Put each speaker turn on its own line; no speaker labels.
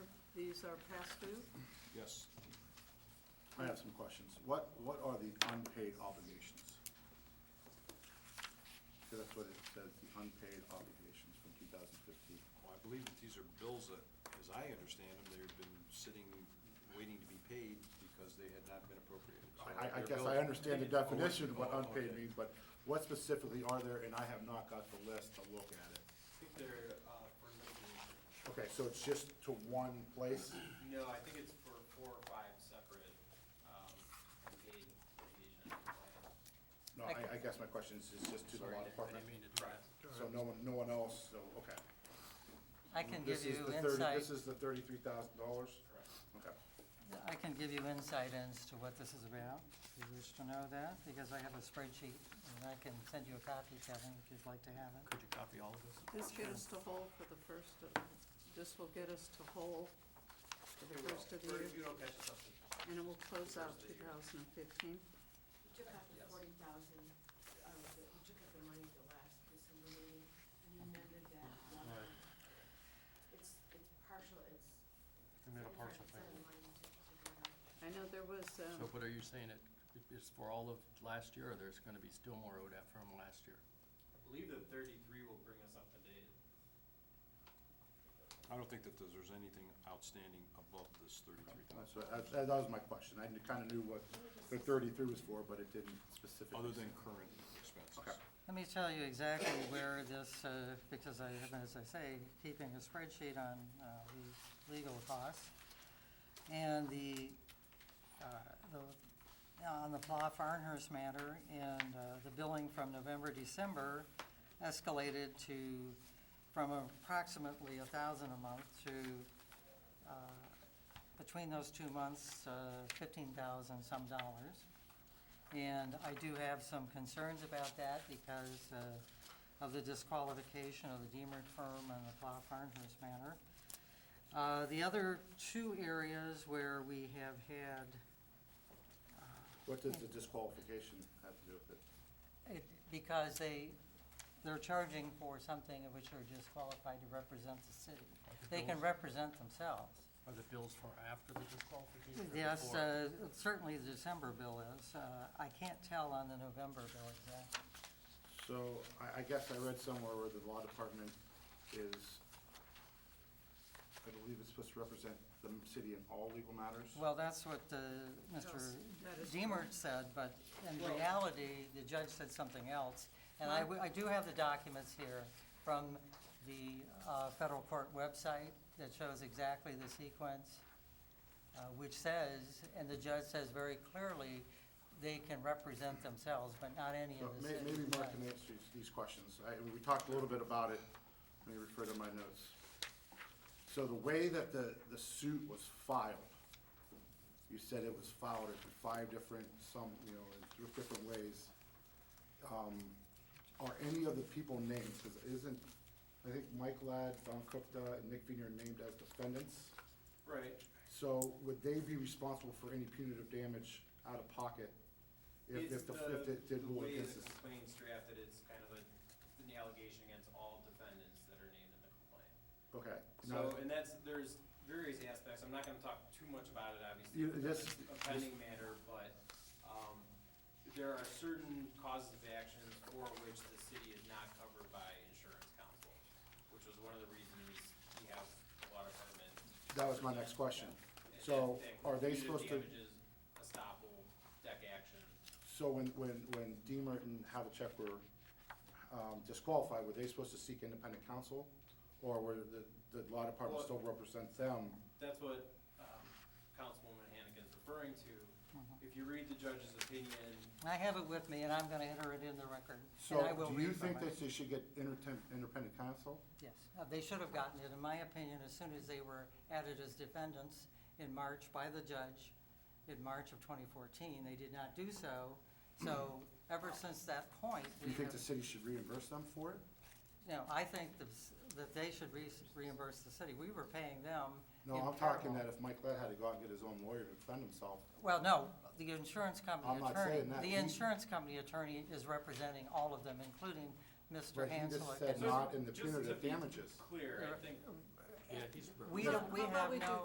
these are past due?
Yes.
I have some questions. What, what are the unpaid obligations? Because that's what it says, the unpaid obligations from two thousand fifteen.
Well, I believe that these are bills that, as I understand them, they've been sitting, waiting to be paid because they had not been appropriated. So
I, I
they're
guess
bills
I understand the
paid. Oh,
definition of what
oh,
unpaid
okay.
means, but what specifically are there, and I have not got the list to look at it.
I think they're, uh, for maybe,
Okay, so it's just to one place?
no, I think it's for four or five separate, um, unpaid litigation plans.
No, I, I guess my question is, is just to the law department,
mean to interrupt.
so no one, no one else, so, okay. Mm,
I can
This is
give
the
you
thirty,
insight,
this is the thirty-three thousand dollars?
Correct.
Okay.
I can give you insight as to what this is about, if you wish to know that, because I have a spreadsheet, and I can send you a copy, Kevin, if you'd like to have it.
Could you copy all of this?
This get us to whole for the first of, this will get us to whole for the first of the
Or
year,
if you don't catch us up to
and it will close out two thousand and fifteen.
We took out the forty thousand, uh, the- we took out the money at the last December meeting, and you amended that. one. It's, it's partial, it's.
We made a partial
75% of the
payment.
money to- to go out.
I know there was,
So,
um,
but are you saying it, it's for all of last year, or there's gonna be still more owed out from last year?
I believe the thirty-three will bring us up to date.
I don't think that there's there's anything outstanding above this thirty-three
That's
thousand,
what, that- that was my question. I kind of knew what the thirty-three was for, but it didn't specifically.
other than
say.
current expenses.
Okay.
Let me tell you exactly where this, uh, because I have, as I say, keeping a spreadsheet on uh, these legal costs. And the, uh, the- on the Pla Farnhurst matter, and uh, the billing from November, December escalated to, from approximately a thousand a month to, uh, between those two months, uh, fifteen thousand some dollars. And I do have some concerns about that because uh, of the disqualification of the Deemer firm and the Plow Farnhurst matter. Uh, The other two areas where we have had,
What does the disqualification have to do with it?
it- because they, they're charging for something of which they're disqualified to represent the city. They can represent themselves.
Are the bills for after the disqualification? or
Yes,
before?
uh, certainly the December bill is. Uh, I can't tell on the November bill exactly.
So I, I guess I read somewhere where the law department is, I believe it's supposed to represent the city in all legal matters?
Well, that's what uh, Mr.
That is-
Deemer said, but in reality, the judge said something else. And I w- I do have the documents here from the uh, federal court website that shows exactly the sequence, uh, which says, and the judge says very clearly, they can represent themselves, but not any
So
of the
may-
city.
Maybe Mark can answer these questions. I, we talked a little bit about it, let me refer to my notes. So the way that the, the suit was filed, you said it was filed in five different, some, you know, in three different ways. Um, Are any of the people named, because isn't, I think Mike Ladd, Don Kupta, and Nick Viner are named as defendants?
Right.
So would they be responsible for any punitive damage out of pocket if,
It's
if the, if it did
the
rule
way
against
the
us?
complaint's drafted, it's kind of a, an allegation against all defendants that are named in the complaint.
Okay.
So,
now-
and that's, there's various aspects, I'm not gonna talk too much about it, obviously,
You-
because
this-
it's a pending matter, but, um, there are certain causes of action for which the city is not covered by insurance counsel, which was one of the reasons we have a lot of department.
That was my next question.
and
So
that thing,
are they
punitive
supposed to,
Damages, estoppel, deck action,
so when, when, when Deemer and Havlicek were um, disqualified, were they supposed to seek independent counsel? Or were the, the law department
Well-
still represent them?
that's what, um, Councilwoman Hannigan's referring to. If you read the judge's opinion,
I have it with me, and I'm going to enter it in the record. and I will
So do you
read from
think
it.
that they should get intertem- independent counsel?
Yes, uh, they should have gotten it, in my opinion, as soon as they were added as defendants in March by the judge, in March of 2014. They did not do so, so ever since that point,
Do
we
you think the
have,
city should reimburse them for it?
you know, I think the s- that they should re- reimburse the city. We were paying them
No,
in
I'm talking that
parallel.
if Mike Ladd had to go out and get his own lawyer to defend himself,
Well, no, the insurance company
I'm not
attorney,
saying that.
the
He-
insurance company attorney is representing all of them, including Mr.
But he just
Hanselick.
said
and-
not in the
just to
punitive
be
damages.
clear, I think
Yeah, he's.
We
No,
don't, we
how about
have
we do
no.